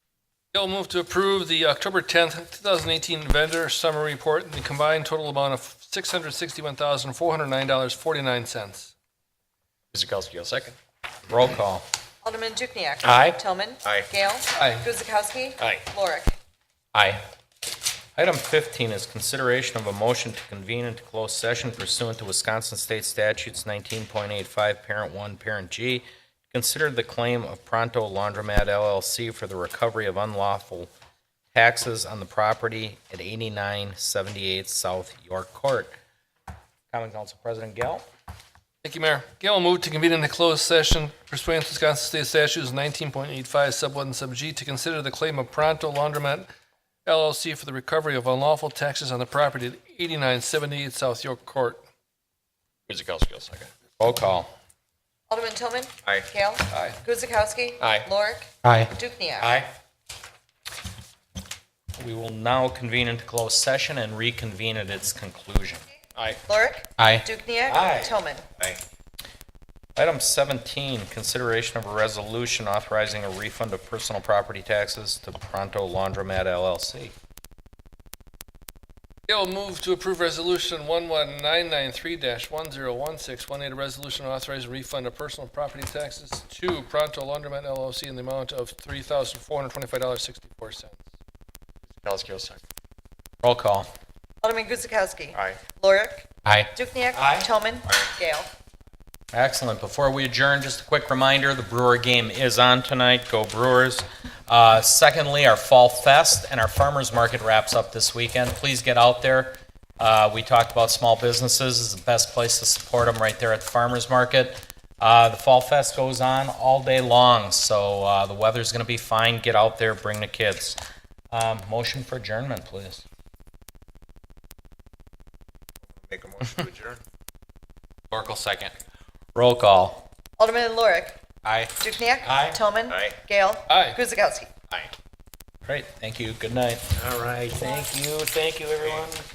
I'll move to approve the October 10th, 2018 vendor summary report in the combined total amount of $661,409.49. Kuzikowski will second. Roll call. Alderman Dukniak. Aye. Toman. Aye. Gale. Aye. Guzekowski. Aye. Lorick. Aye. Item 15 is consideration of a motion to convene into closed session pursuant to Wisconsin State Statutes 19.85, Parent 1, Parent G. Consider the claim of Pronto Laundromat LLC for the recovery of unlawful taxes on the property at 8978 South York Court. Common Council President Gale? Thank you, Mayor. Gail will move to convene in a closed session pursuant to Wisconsin State Statutes 19.85 Sub 1 Sub G to consider the claim of Pronto Laundromat LLC for the recovery of unlawful taxes on the property at 8978 South York Court. Kuzikowski will second. Roll call. Alderman Toman. Aye. Gale. Aye. Guzekowski. Aye. Lorick. Aye. Dukniak. We will now convene into closed session and reconvene at its conclusion. Aye. Lorick. Aye. Dukniak. Aye. Toman. Aye. Item 17, consideration of a resolution authorizing a refund of personal property taxes to Pronto Laundromat LLC. Gail will move to approve Resolution 11993-101618, a resolution authorizing refund of personal property taxes to Pronto Laundromat LLC in the amount of $3,425.64. Kuzikowski, second. Roll call. Alderman Guzekowski. Aye. Lorick. Aye. Dukniak. Aye. Toman. Gale. Excellent. Before we adjourn, just a quick reminder, the Brewer game is on tonight. Go Brewers. Uh, Secondly, our Fall Fest and our Farmers Market wraps up this weekend. Please get out there. Uh, We talked about small businesses is the best place to support them, right there at the Farmers Market. Uh, The Fall Fest goes on all day long, so uh, the weather's going to be fine. Get out there, bring the kids. Um, Motion for adjournment, please. Make a motion to adjourn. Oracle, second. Roll call. Alderman Lorick. Aye. Dukniak. Aye. Toman. Aye. Gale. Aye. Guzekowski. Great, thank you. Good night. All right, Thank you, thank you, everyone.